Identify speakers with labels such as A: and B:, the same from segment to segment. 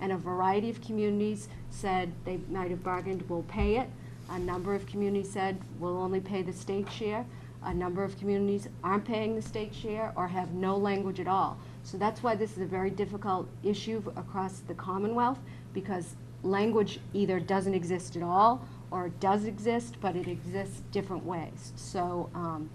A: and a variety of communities said they might have bargained, we'll pay it. A number of communities said, we'll only pay the state share. A number of communities aren't paying the state share or have no language at all. So that's why this is a very difficult issue across the Commonwealth, because language either doesn't exist at all, or it does exist, but it exists different ways. So um,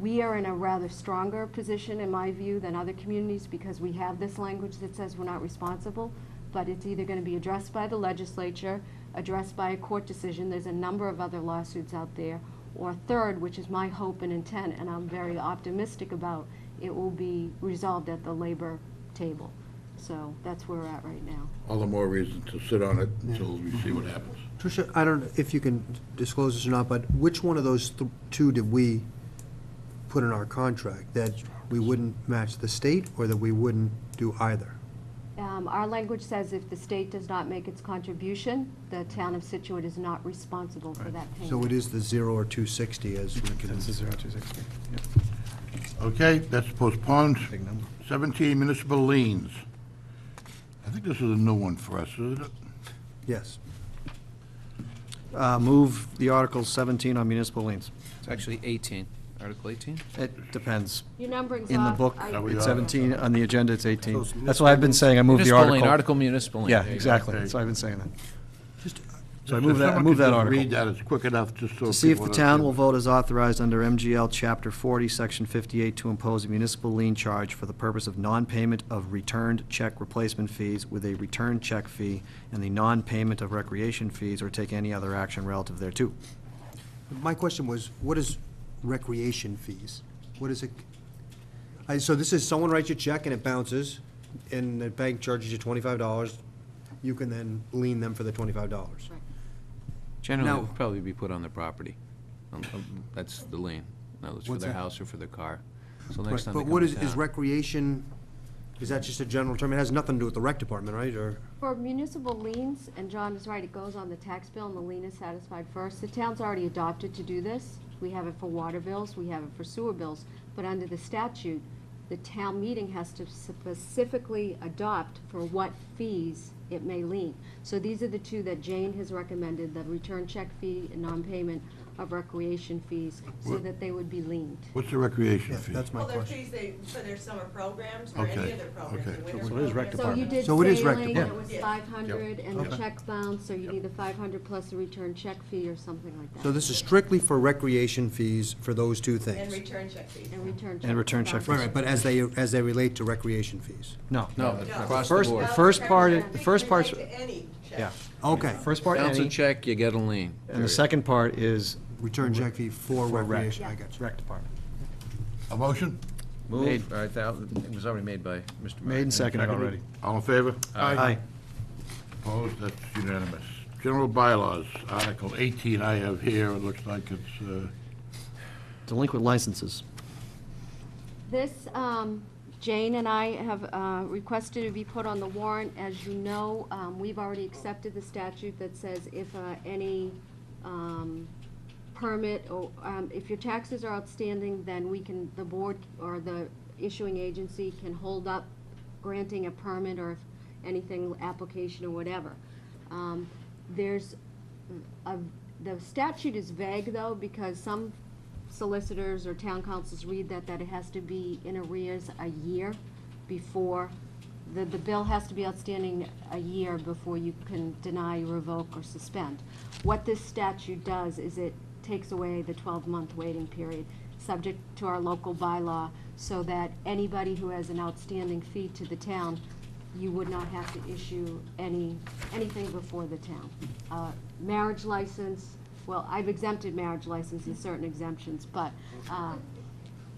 A: we are in a rather stronger position, in my view, than other communities, because we have this language that says we're not responsible, but it's either going to be addressed by the legislature, addressed by a court decision, there's a number of other lawsuits out there, or third, which is my hope and intent, and I'm very optimistic about, it will be resolved at the labor table. So that's where we're at right now.
B: All the more reason to sit on it until we see what happens.
C: Tricia, I don't know if you can disclose this or not, but which one of those th- two did we put in our contract? That we wouldn't match the state, or that we wouldn't do either?
A: Um, Our language says if the state does not make its contribution, the town of Situate is not responsible for that payment.
C: So it is the zero or two sixty as we can.
D: That's a zero two sixty, yeah,
B: Okay, that's postponed.
D: big number.
B: 17 municipal liens. I think this is a new one for us, isn't it?
C: Yes.
D: Uh, move the Article seventeen on municipal liens.
E: It's actually 18, Article 18?
D: It depends.
A: Your numbering's
D: In the
A: off.
D: book,
A: I-
B: That we
D: it's
B: are.
D: seventeen, on the agenda, it's eighteen.
C: Those
D: That's why I've been saying I move the
E: Municipal lien,
D: article.
E: Article municipal lien.
D: Yeah,
E: there you go.
D: exactly,
B: Okay.
D: that's why I've been saying that.
C: Just,
D: So I
B: If
D: move that, I
B: someone
D: move
B: could
D: that
B: just Read
D: article.
B: that, it's quick enough, just so.
D: To see if
B: people
D: the town will
B: understand.
D: vote as authorized under MGL Chapter 40, Section 58, to impose a municipal lien charge for the purpose of non-payment of returned check replacement fees with a return check fee and the non-payment of recreation fees or take any other action relative thereto.
C: my question was, what is recreation fees? What is it? I, so this is, someone writes you a check and it bounces, and the bank charges you twenty-five dollars, you can then lien them for the twenty-five dollars.
A: Right.
E: Generally,
C: Now-
E: it would probably be put on the property. Um, um, That's the lien, whether it's for
C: What's
E: their
C: that?
E: house or for their car. So
C: Right,
E: next time they
C: But
E: come
C: what
E: to
C: is, is
E: town-
C: recreation, is that just a general term? It has nothing to do with the rec department, right, or?
A: For municipal liens, and John is right, it goes on the tax bill and the lien is satisfied first. The town's already adopted to do this. We have it for water bills, we have it for sewer bills. But under the statute, the town meeting has to specifically adopt for what fees it may lien. So these are the two that Jane has recommended, the return check fee and non-payment of recreation fees, so that they would be liened.
B: What's the recreation
C: Yeah,
B: fee?
C: uh, that's my
F: Well, they're
C: question.
F: fees they, for their summer programs or
B: Okay,
F: any other programs,
B: okay.
F: their
D: So
F: winter
D: it is rec
F: programs.
A: So you
D: department.
A: did
C: So it is rec
A: sailing, and it
C: department.
A: was
F: Yeah.
A: five hundred, and the
C: Okay.
A: check bounced, so you need the five hundred plus a return check fee or something like that.
C: So this is strictly for recreation fees for those two
F: And
C: things?
F: return check fees.
A: And return check.
D: return check
C: Right, right, but as they, as they relate to recreation fees?
D: No.
E: No,
F: No.
E: across the
D: First-
E: board.
F: Well,
D: first part-
F: return check
D: the first
F: fees
D: part's-
F: relate to any check.
D: Yeah.
C: Okay,
D: First part,
E: Bounce a
D: any,
E: check, you get a lien.
D: and the
E: period.
D: second part is
C: return check fee for
D: for rec.
C: recreation, I got you.
D: Rec department.
B: A motion?
E: Move,
D: Made.
E: all right, that, it was already made by Mr. Murray.
D: Made and seconded already.
B: All in favor?
D: Aye.
B: Opposed? That's unanimous. General bylaws, Article 18 I have here, it looks like it's, uh,
D: Delinquent licenses.
A: This, um, Jane and I have uh, requested to be put on the warrant. As you know, um, we've already accepted the statute that says if uh, any um, permit or, um, if your taxes are outstanding, then we can, the board or the issuing agency can hold up granting a permit or if anything, application or whatever. Um, There's a- the statute is vague, though, because some solicitors or town councils read that, that it has to be in arrears a year before, the, the bill has to be outstanding a year before you can deny, revoke, or suspend. What this statute does is it takes away the twelve-month waiting period, subject to our local bylaw, so that anybody who has an outstanding fee to the town you would not have to issue any, anything before the town. Uh, Marriage license, well, I've exempted marriage license and certain exemptions, but, uh,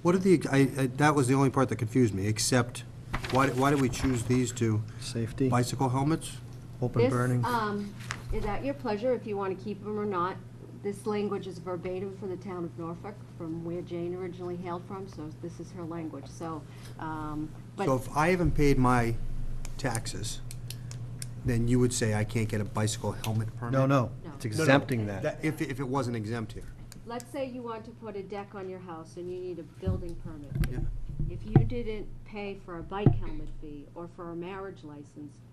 C: What are the, I, I- that was the only part that confused me, except, why, did- why did we choose these two?
D: Safety,
C: Bicycle helmets?
D: open
A: this,
D: burning.
A: um, is at your pleasure if you want to keep them or not. This language is verbatim for the town of Norfolk, from where Jane originally hailed from, so this is her language, so, um, but.
C: So if I haven't paid my taxes, then you would say I can't get a bicycle helmet permit?
D: No, no, it's
A: No,
C: no.
D: exempting that.
C: That, if, if it wasn't exempt here.
A: Let's say you want to put a deck on your house and you need a building permit.
C: Yeah.
A: If you didn't pay for a bike helmet fee or for a marriage license,